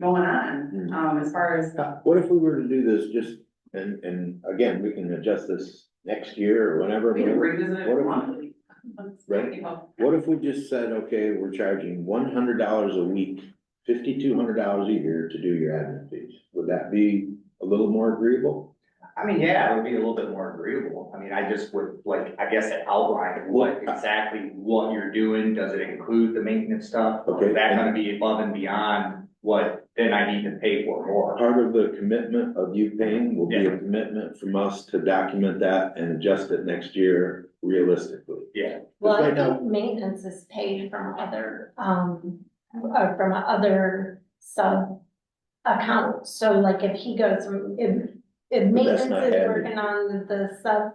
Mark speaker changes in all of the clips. Speaker 1: going on,
Speaker 2: Mm-hmm.
Speaker 3: Hmm.
Speaker 1: um, as far as the,
Speaker 3: Uh, What if we were to do this just, and, and again, we can adjust this next year or whenever.
Speaker 1: we can revisit
Speaker 3: what if
Speaker 1: it
Speaker 3: we-
Speaker 1: monthly.
Speaker 3: Right. What if we just said, okay, we're charging one hundred dollars a week, fifty-two hundred dollars a year to do your admin fees? Would that be a little more agreeable?
Speaker 2: I mean, yeah, it would be a little bit more agreeable. I mean, I just would like, I guess, outline what exactly what you're doing. Does it include the maintenance stuff? Or
Speaker 3: Okay.
Speaker 2: Is that gonna be above and beyond what then I need to pay for more?
Speaker 3: Part of the commitment of you paying will be a
Speaker 2: Yeah.
Speaker 3: commitment from us to document that and adjust it next year realistically.
Speaker 2: Yeah,
Speaker 4: Well, I
Speaker 3: Right now-
Speaker 4: think maintenance is paid from other, um, uh, from other sub accounts. So like if he goes from, if, if
Speaker 3: But
Speaker 4: maintenance
Speaker 3: that's
Speaker 4: is
Speaker 3: not added.
Speaker 4: working on the sub,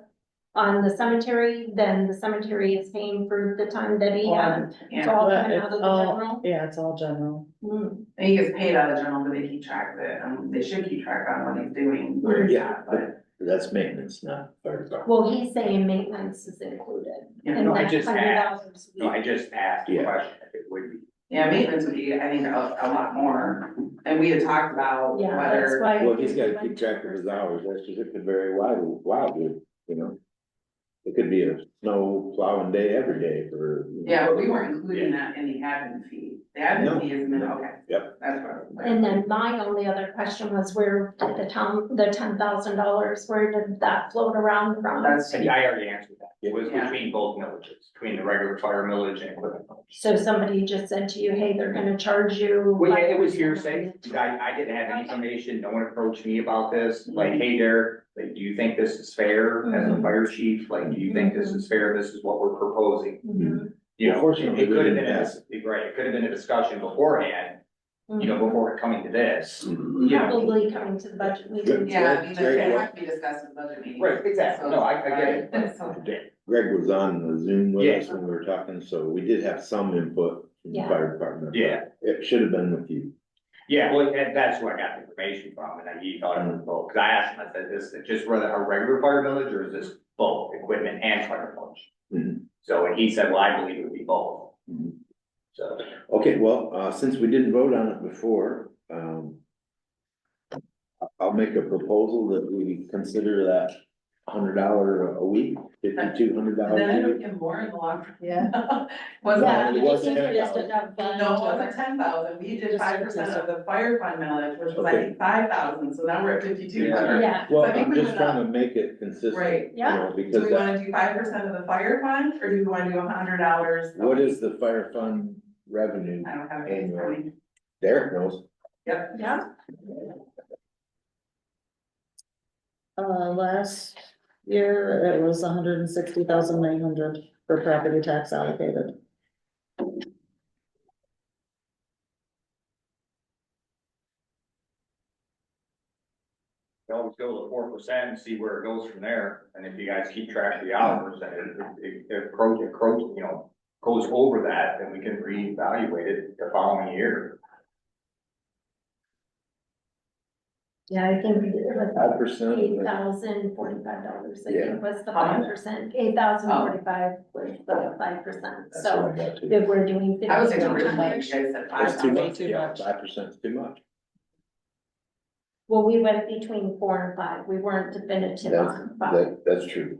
Speaker 4: on the cemetery, then the cemetery is paying for the time that he has. It's
Speaker 1: Yeah,
Speaker 4: all
Speaker 5: But
Speaker 4: coming out
Speaker 5: it's
Speaker 4: of
Speaker 5: all-
Speaker 4: the Hmm.
Speaker 5: Yeah, it's all general.
Speaker 4: general.
Speaker 1: and he gets paid out of general, but they keep track of it, um, they should keep track on what he's doing, where he's
Speaker 3: Yeah.
Speaker 1: at, but,
Speaker 3: That's maintenance, not fire department.
Speaker 4: Well, he's saying maintenance is included
Speaker 1: you
Speaker 4: in
Speaker 1: know,
Speaker 2: No, I
Speaker 4: that hundred
Speaker 2: just asked.
Speaker 4: dollars.
Speaker 2: no, I just asked the
Speaker 3: Yeah.
Speaker 2: question, if it would be.
Speaker 1: yeah, maintenance would be, I think, a, a lot more, and we had talked about
Speaker 4: Yeah, that's
Speaker 1: whether,
Speaker 4: why.
Speaker 3: Well, he's gotta keep track of his hours, that's just, it could vary wildly, wildly, you know? It could be a snow plowing day every day for. you know,
Speaker 1: yeah, but we weren't including that in the admin fee. The
Speaker 3: No.
Speaker 1: admin fee is, min- okay.
Speaker 3: Yep.
Speaker 1: That's what. I was like.
Speaker 4: And then my only other question was where did the town, the ten thousand dollars, where did that float around from?
Speaker 1: That's,
Speaker 2: And I already answered that. It was
Speaker 1: Yeah.
Speaker 2: between both villages, between the regular fire millage and equipment millage.
Speaker 4: So somebody just said to you, hey, they're gonna charge you.
Speaker 2: Well, yeah, it was hearsay. I, I didn't have any information. No one approached me about this. Like, hey Derek, like, do you think this is fair as a fire chief? Like, do you think this is fair? This is what we're proposing.
Speaker 4: Mhm,
Speaker 2: You know, it
Speaker 3: Unfortunately,
Speaker 2: it
Speaker 3: we
Speaker 2: could have
Speaker 3: didn't
Speaker 2: been, a
Speaker 3: ask.
Speaker 2: dis- right, it could have been a discussion beforehand, you know,
Speaker 4: mhm.
Speaker 2: before coming to this.
Speaker 1: yeah.
Speaker 4: Mm-hmm. Probably coming to the budget meeting.
Speaker 1: Yeah, I mean,
Speaker 3: Greg-
Speaker 1: they
Speaker 3: Greg-
Speaker 1: have to be discussed at the budget meeting.
Speaker 2: Right, exactly. No, I, I get it. but-
Speaker 1: So,
Speaker 3: Greg was on the Zoom with
Speaker 2: Yeah.
Speaker 3: us when we were talking, so we did have some input from the
Speaker 4: Yeah.
Speaker 3: fire department. but
Speaker 2: Yeah.
Speaker 3: It should have been with you.
Speaker 2: Yeah, well, that, that's where I got the information from, and then he thought it was both, cause I asked him, I said, is it just rather a regular fire village, or is this both equipment and fire village?
Speaker 3: Mhm.
Speaker 2: So, and he said, well, I believe it would be both.
Speaker 3: Mhm.
Speaker 2: So,
Speaker 3: Okay, well, uh, since we didn't vote on it before, um. I- I'll make a proposal that we consider that hundred dollar a week, fifty-two
Speaker 1: And
Speaker 3: hundred dollars
Speaker 1: then
Speaker 3: a
Speaker 1: I
Speaker 3: week.
Speaker 1: don't get more in the long.
Speaker 5: Yeah.
Speaker 1: Wasn't,
Speaker 4: Yeah,
Speaker 3: it
Speaker 4: I
Speaker 3: wasn't
Speaker 4: think
Speaker 3: ten
Speaker 4: you just
Speaker 3: thousand.
Speaker 4: enough
Speaker 1: no,
Speaker 4: fund
Speaker 1: it wasn't
Speaker 4: to-
Speaker 1: ten thousand, we did
Speaker 5: Just-
Speaker 1: five percent of the fire fund millage, which was I
Speaker 3: Okay.
Speaker 1: think five thousand, so now we're at fifty-two hundred.
Speaker 4: Yeah,
Speaker 3: Well,
Speaker 1: I think
Speaker 3: I'm
Speaker 1: we
Speaker 3: just
Speaker 1: went
Speaker 3: trying to make it consistent.
Speaker 1: Right.
Speaker 3: you know,
Speaker 1: Do
Speaker 3: Because
Speaker 1: we
Speaker 3: that-
Speaker 1: wanna do five percent of the fire fund, or do we wanna do a hundred dollars?
Speaker 3: what is the fire fund revenue?
Speaker 1: I don't have it, in front of me.
Speaker 3: Derek knows.
Speaker 1: yep,
Speaker 4: yeah,
Speaker 5: Uh, last year, it was hundred and sixty thousand nine hundred for property tax allocated.
Speaker 2: we always go to four percent and see where it goes from there, and if you guys keep track of the hours, and it- it, it approach, it approach, you know, goes over that, then we can reevaluate it the following year.
Speaker 4: yeah, I think it was
Speaker 3: Five percent.
Speaker 4: eight thousand forty-five dollars, I
Speaker 3: Yeah.
Speaker 4: think was the
Speaker 1: How much?
Speaker 4: five percent, eight thousand forty-five was the five percent,
Speaker 3: That's
Speaker 4: so.
Speaker 3: what I got to.
Speaker 4: If we're doing fifty.
Speaker 1: I was thinking
Speaker 5: Too
Speaker 1: originally, you guys
Speaker 5: much.
Speaker 1: said five
Speaker 3: That's too
Speaker 1: thousand.
Speaker 3: much,
Speaker 5: too
Speaker 3: yeah,
Speaker 5: much.
Speaker 3: five percent's too much.
Speaker 4: Well, we went between four and five, we weren't definitive on five,
Speaker 3: That, that's true.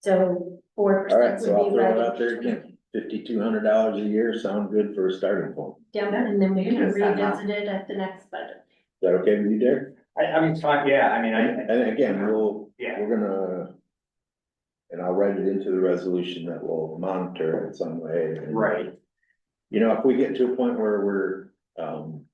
Speaker 4: so four
Speaker 3: All right,
Speaker 4: percent
Speaker 3: so I'll
Speaker 4: would be
Speaker 3: throw
Speaker 4: right.
Speaker 3: it out there again. Fifty-two hundred dollars a year sound good for a starting point. Is
Speaker 4: Yeah, and then we
Speaker 1: You
Speaker 4: can
Speaker 1: just said that.
Speaker 4: revisit it at the next budget.
Speaker 3: that okay with you, Derek?
Speaker 2: I, I mean, it's fine, yeah, I mean, I,
Speaker 3: And again, we'll,
Speaker 2: yeah,
Speaker 3: we're gonna, and I'll write it into the resolution that we'll monitor it some way. and-
Speaker 2: right.
Speaker 3: You know, if we get to a point where we're, um,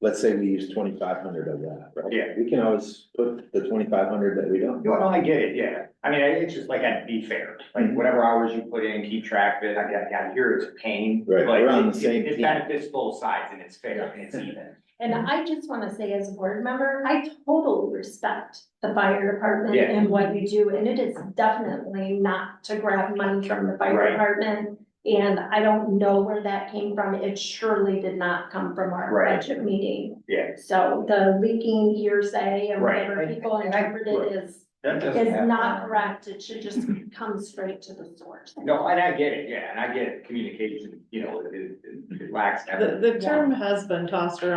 Speaker 3: let's say we use twenty-five hundred of that, right?
Speaker 2: Yeah.
Speaker 3: We can always put the twenty-five hundred that we don't.
Speaker 2: No, no, I get it, yeah. I mean, I- it's just like, I'd be fair,
Speaker 3: Mhm.
Speaker 2: like whatever hours you put in, keep track of it. I got, I hear it's a pain.
Speaker 3: Right,
Speaker 2: but
Speaker 3: we're on the
Speaker 2: it- it-
Speaker 3: same
Speaker 2: It
Speaker 3: team.
Speaker 2: benefits both sides and it's fair and it's even.
Speaker 4: And I just wanna say as a board member, I totally respect the fire department
Speaker 2: Yeah.
Speaker 4: and what you do, and it is definitely not to grab money from the fire
Speaker 2: Right.
Speaker 4: department. And I don't know where that came from, it surely did not come from our
Speaker 2: Right.
Speaker 4: budget meeting.
Speaker 2: Yeah.
Speaker 4: So the leaking hearsay and
Speaker 2: Right.
Speaker 4: whatever people
Speaker 2: And I-
Speaker 4: interpret it is
Speaker 2: That doesn't
Speaker 4: is
Speaker 2: happen.
Speaker 4: not correct, it should just come straight to the source.
Speaker 2: No, and I get it, yeah, and I get it. Communication, you know, it, it- it lacks.
Speaker 5: The, the term has been tossed around